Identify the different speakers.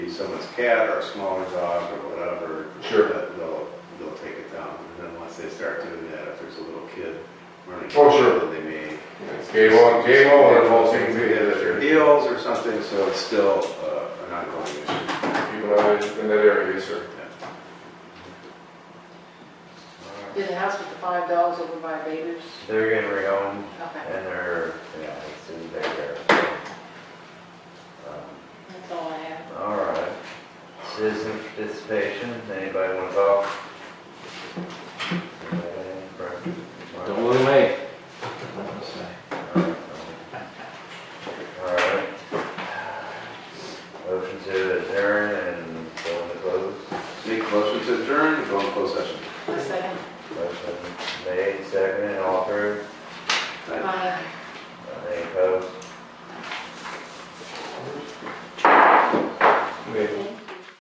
Speaker 1: someone's cat or a smaller dog or whatever.
Speaker 2: Sure.
Speaker 1: that They'll, they'll take it down. And then once they start doing that, if there's a little kid running.
Speaker 2: Oh, sure.
Speaker 1: Then they may.
Speaker 2: It's game on, game on, and all things we have
Speaker 1: Their
Speaker 2: there.
Speaker 1: deals or something, so it's still uh, an ongoing issue.
Speaker 2: Keep an eye in that area, yes, sir.
Speaker 3: Did the house with the five dogs over by Bader's?
Speaker 4: They're gonna reown
Speaker 3: Okay,
Speaker 4: and they're, yeah, it's in there. Um,
Speaker 3: that's all I have.
Speaker 4: All right. Citizen participation, anybody wanna talk? Anybody for-
Speaker 5: Don't look away.
Speaker 4: All right. Motion to adjourn and go into close.
Speaker 1: Make a motion to adjourn and go in closed session.
Speaker 3: A second.
Speaker 4: Motion made, seconded, all approved.
Speaker 3: Bye.